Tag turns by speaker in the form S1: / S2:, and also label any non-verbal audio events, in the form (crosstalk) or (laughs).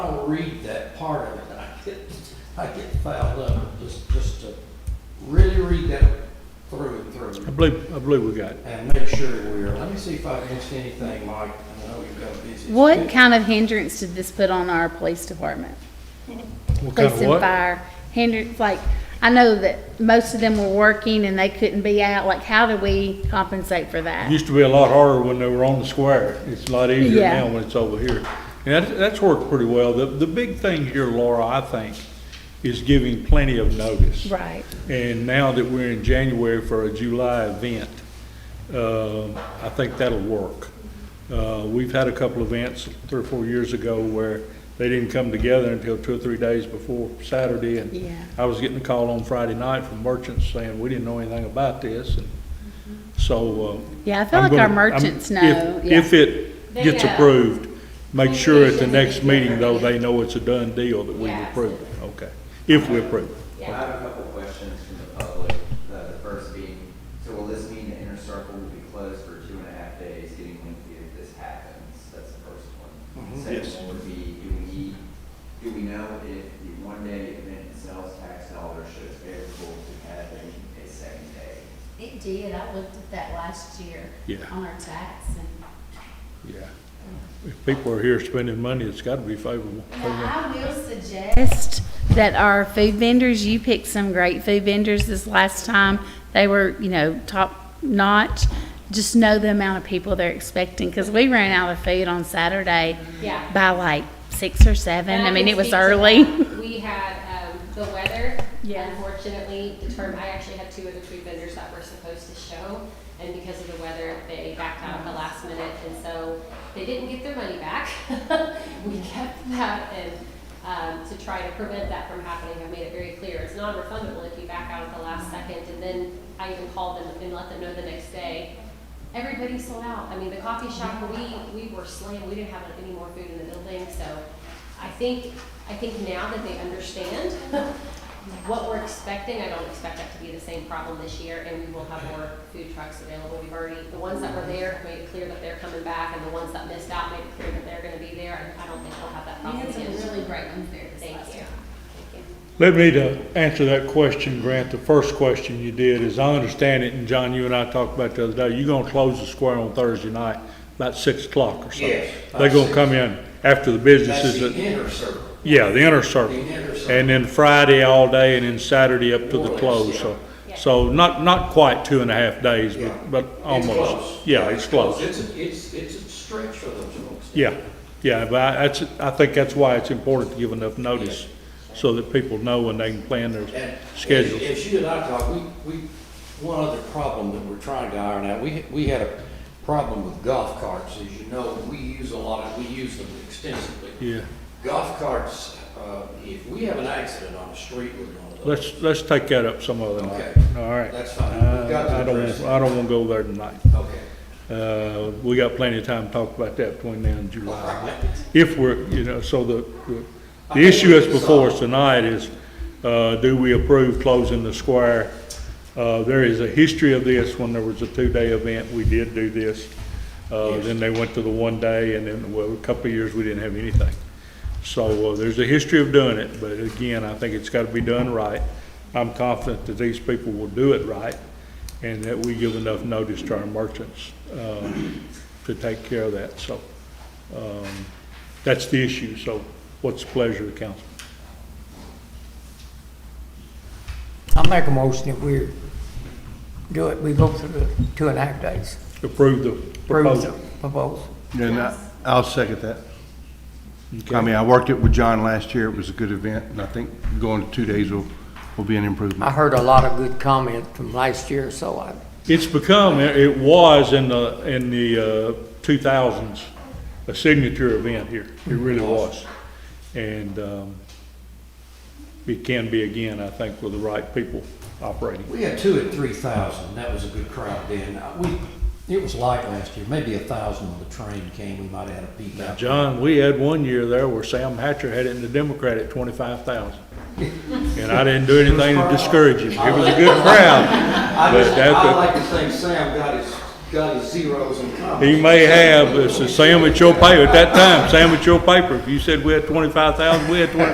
S1: read that part of it, and I get, I get fouled up, just, just to really read that through and
S2: I
S1: through
S2: believe, I believe we got it.
S1: and make sure we're, let me see if I missed anything, Mike, I know you've got a busy.
S3: What kind of hindrance did this put on our police department?
S2: What kind
S3: Police
S2: of
S3: and
S2: what?
S3: fire, hindrance, like, I know that most of them were working and they couldn't be out, like, how do we compensate for that?
S2: Used to be a lot harder when they were on the square. It's a lot easier
S3: Yeah.
S2: now when it's over here. And that's, that's worked pretty well. The, the big thing here, Laura, I think, is giving plenty of notice.
S3: Right,
S2: And now that we're in January for a July event, uh, I think that'll work. Uh, We've had a couple events three or four years ago where they didn't come together until two or three days before Saturday. And
S3: yeah.
S2: I was getting a call on Friday night from merchants saying, we didn't know anything about this. And So. uh,
S3: Yeah, I feel
S2: I'm
S3: like our
S2: gonna- I'm-
S3: merchants
S2: if-
S3: know, yeah.
S2: If it
S4: They
S2: gets
S4: know.
S2: approved, make sure at the
S4: Communication's a
S2: next
S4: big
S2: meeting though,
S4: difference.
S2: they know it's a done deal that we
S4: Yeah,
S2: approve it. Okay, if we approve it.
S5: I have a couple questions from the public, uh, the first being, so will this mean the inner circle will be closed for two and a half days getting lengthy if this happens? That's the first one.
S1: Mhm.
S5: The
S2: Yes.
S5: Second one would be, do we, do we know if the one-day event in sales tax dollars shows favorable to having a second day?
S4: It did, I looked at that last year
S2: Yeah.
S4: on our tax and,
S2: Yeah. If people are here spending money, it's gotta be favorable.
S4: now I will suggest,
S3: Suggest That our food vendors, you picked some great food vendors this last time. They were, you know, top notch. Just know the amount of people they're expecting, because we ran out of food on Saturday
S6: Yeah.
S3: by like six or seven.
S6: And
S3: I mean,
S6: can
S3: it was
S6: speak to that.
S3: early. (laughs)
S6: We had, um, the weather,
S3: Yeah.
S6: unfortunately, determined, I actually had two of the food vendors that were supposed to show, and because of the weather, they backed out at the last minute, and so they didn't get their money back. (laughs) We kept that, and, um, to try to prevent that from happening, I made it very clear, it's non-refundable if you back out at the last second, and then I even called them and let them know the next day, everybody sold out. I mean, the coffee shop, we, we were slammed, we didn't have any more food in the building, so I think, I think now that they understand (laughs) what we're expecting, I don't expect that to be the same problem this year, and we will have more food trucks available. We've already, the ones that were there made it clear that they're coming back, and the ones that missed out made it clear that they're gonna be there, and I don't think we'll have that
S4: we
S6: problem
S4: had some
S6: again.
S4: really great ones there this
S6: Thank
S4: last
S6: you.
S4: year.
S6: Thank you.
S2: Let me to answer that question, Grant, the first question you did, is I understand it, and John, you and I talked about it the other day, you're gonna close the square on Thursday night, about six o'clock or so.
S1: Yes.
S2: They're gonna come in after the business
S1: That's
S2: is,
S1: the
S2: at-
S1: inner circle.
S2: yeah, the inner
S1: The
S2: circle.
S1: inner circle.
S2: And then Friday all day, and then Saturday up to
S1: More or
S2: the
S1: less,
S2: close,
S1: yeah.
S2: so, so not, not quite two and a half days,
S1: Yeah.
S2: but, but
S1: It's
S2: almost.
S1: close.
S2: Yeah, it's close.
S1: It's, a- it's, it's a stretch for those folks.
S2: Yeah, yeah, but I, that's, I think that's why it's important to give enough notice, so that people know when they can plan their,
S1: And
S2: Schedule.
S1: As as you and I talked, we, we, one other problem that we're trying to iron out, we, we had a problem with golf carts. As you know, we use a lot of, we use them extensively.
S2: yeah.
S1: Golf carts, uh, if we have an accident on the street with one of those,
S2: Let's, let's take that up some other night,
S1: Okay.
S2: all right? Uh,
S1: That's fine. We've got to
S2: I I don't,
S1: address it.
S2: I don't wanna go there tonight.
S1: okay.
S2: Uh, we got plenty of time to talk about that between now and July.
S1: Right.
S2: If we're, you know, so the, the- the issue that's before us tonight is, uh, do we approve closing the square? Uh, there is a history of this, when there was a two-day event, we did do this. Uh, then they went to the one day, and then, well, a couple of years, we didn't have anything. So, uh, there's a history of doing it, but again, I think it's gotta be done right. I'm confident that these people will do it right, and that we give enough notice to our merchants, uh, to take care of that, so. Um, That's the issue, so what's the pleasure of the council?
S7: I make a motion that we do it, we go through the two and a half days.
S2: Approve the
S7: Approve the
S2: proposal?
S7: Proposal.
S8: And I- I'll second that.
S2: Okay.
S8: I mean, I worked it with John last year, it was a good event, and I think going to two days will, will be an
S7: I
S8: improvement.
S7: heard a lot of good comment from last year, so I,
S2: It's become, it was in the, in the uh, two thousands, a signature event here. It really was. And um, it can be again, I think, with the right people operating.
S1: We had two at three thousand, that was a good crowd then. Uh, We, it was light last year, maybe a thousand when the train came, we might have had a peak out.
S2: John, we had one year there where Sam Hatcher had it in the Democrat at twenty-five thousand. And I didn't do anything to discourage him. It was a good crowd.
S1: I
S2: But
S1: just,
S2: that's
S1: I
S2: a-
S1: like to think Sam got his got his zeros and commas.
S2: He may have, it's a sandwich your paper, at that time, sandwich your paper. If you said we had twenty-five thousand, we had twenty